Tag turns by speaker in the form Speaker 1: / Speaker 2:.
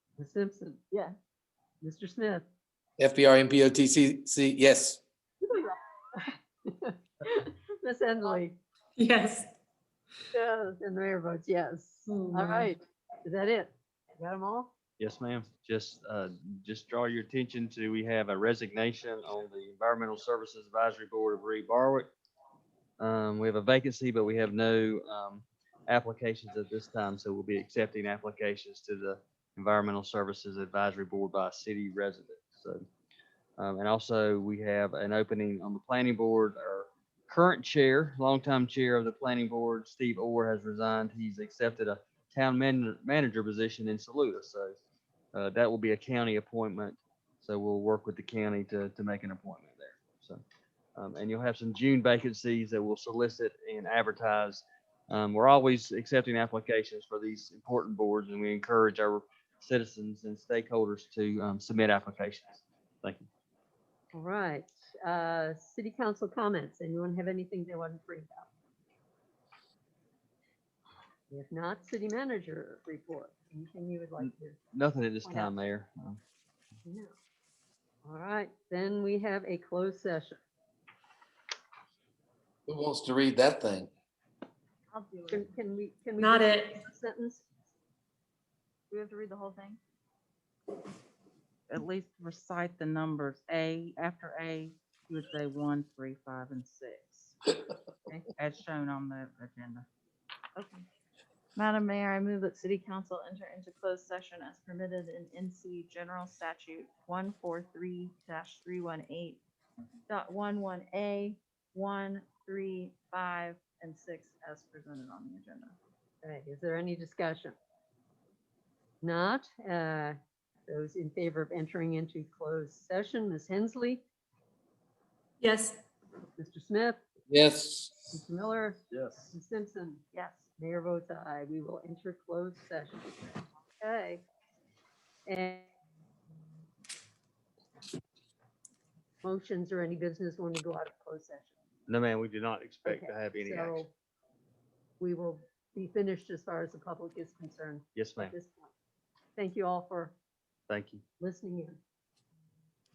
Speaker 1: Ms. Simpson,
Speaker 2: Yeah.
Speaker 1: Mr. Smith,
Speaker 3: FBR MPOTCC, yes.
Speaker 1: Ms. Endley,
Speaker 4: Yes.
Speaker 1: yes, and the mayor votes yes.
Speaker 4: Oh,
Speaker 1: All
Speaker 4: man.
Speaker 1: right, is that it? Got them all?
Speaker 5: Yes, ma'am. Just, uh, just draw your attention to, we have a resignation on the Environmental Services Advisory Board of Reed Barwick. Um, we have a vacancy, but we have no, um, applications at this time, so we'll be accepting applications to the Environmental Services Advisory Board by city residents, so. Um, and also, we have an opening on the planning board, our current chair, longtime chair of the planning board, Steve Orr has resigned. He's accepted a town man- manager position in Saluda, so uh, that will be a county appointment. So we'll work with the county to, to make an appointment there. So, um, and you'll have some June vacancies that we'll solicit and advertise. Um, we're always accepting applications for these important boards and we encourage our citizens and stakeholders to, um, submit applications. Thank you.
Speaker 1: All right, uh, city council comments, anyone have anything they want to bring up? If not, city manager report, anything you would like to?
Speaker 5: Nothing at this
Speaker 1: Point out.
Speaker 5: time, Mayor. Um,
Speaker 1: No. All right, then we have a closed session.
Speaker 3: Who wants to read that thing?
Speaker 2: I'll do
Speaker 1: Can
Speaker 2: it.
Speaker 1: can we, can we?
Speaker 4: Not
Speaker 1: do
Speaker 4: it.
Speaker 1: a Sentence?
Speaker 2: Do we have to read the whole thing?
Speaker 6: at least recite the numbers. A, after A, you would say one, three, five, and six. okay, As shown on the agenda.
Speaker 2: Okay. Madam Mayor, I move that city council enter into closed session as permitted in NC General Statute one four three three one eight dot one one A, one, three, five, and six as presented on the agenda.
Speaker 1: Right, is there any discussion? Not, uh, those in favor of entering into closed session, Ms. Hensley,
Speaker 4: Yes.
Speaker 1: Mr. Smith,
Speaker 3: Yes.
Speaker 1: Mr. Miller,
Speaker 5: Yes.
Speaker 1: Ms. Simpson,
Speaker 2: Yes.
Speaker 1: Mayor votes aye. We will enter closed session. Okay. And motions or any business when we go out of closed session.
Speaker 5: No, ma'am, we do not expect to
Speaker 1: Okay,
Speaker 5: have any action.
Speaker 1: So we will be finished as far as the public is concerned
Speaker 5: Yes, ma'am.
Speaker 1: at this point. Thank you all for
Speaker 5: Thank you.
Speaker 1: listening in.